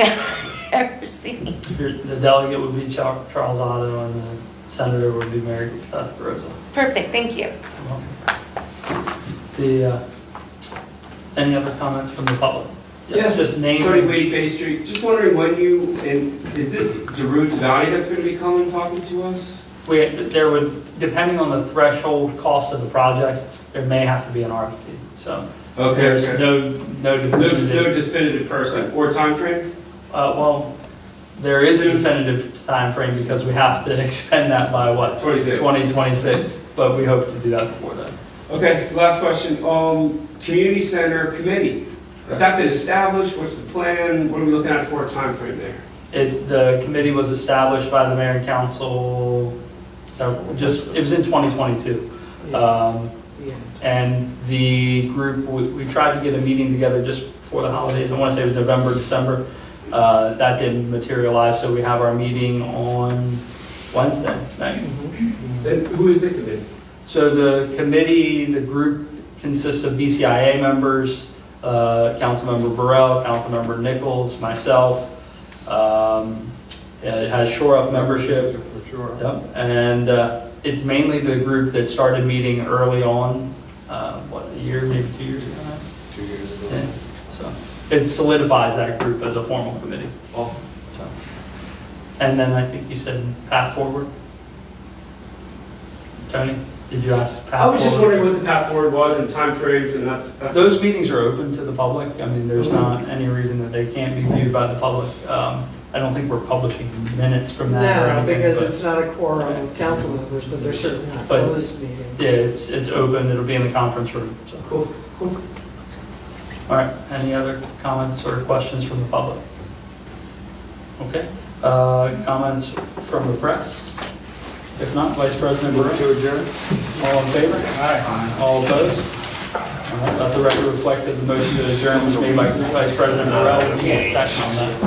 I've ever seen. Your- The delegate would be Char- Charles Otto, and the senator would be Mary Beth Rosa. Perfect, thank you. The, uh, any other comments from the public? Yes, Just name. Tony Wade Bay Street, just wondering when you, and is this Daru Devani that's gonna be coming, talking to us? We, there would, depending on the threshold cost of the project, there may have to be an RFP, so. There's Okay, no, no there's no definitive, definitive person or timeframe? uh, well, there is a definitive timeframe because we have to expend that by what? Twenty-six. 2026, but we hope to do that before then. Okay, last question, um, community center committee, has that been established, what's the plan, what are we looking at for a timeframe there? It, the committee was established by the mayor and council, so just, it was in 2022. Um, And the group, we we tried to get a meeting together just before the holidays, I want to say it was November, December. Uh, That didn't materialize, so we have our meeting on Wednesday night. Then who is the committee? So the committee, the group consists of BCIA members, uh, Councilmember Burrell, Councilmember Nichols, myself. Um, It has Shore Up membership. For sure. Yep. And uh, it's mainly the group that started meeting early on, uh, what, a year, maybe two years ago? now? Two years Yeah. So it solidifies that group as a formal committee. Awesome. So. And then I think you said path forward. Tony, did you ask? path I was just forward? wondering what the path forward was and timeframes and that's, that's. Those meetings are open to the public. I mean, there's Mm-hmm. not any reason that they can't be viewed by the public. Um, I don't think we're publishing minutes from that or No, anything. because but- it's not a quorum of council members, but they're certainly not But- closed meetings. Yeah, it's, it's open. It'll be in the conference room. so. Cool, cool. All right, any other comments or questions from the public? Okay, uh, comments from the press? If not, Vice President Burrow? To adjourn. All in favor? Aye. All opposed? All right, Let the record reflect that the motion to adjourn was made by Vice President Burrow. We need a second on that.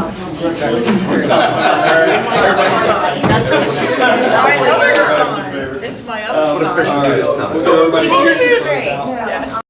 My other All sign. It's my Um, other sign. right, so everybody- Did you do it great? Yes.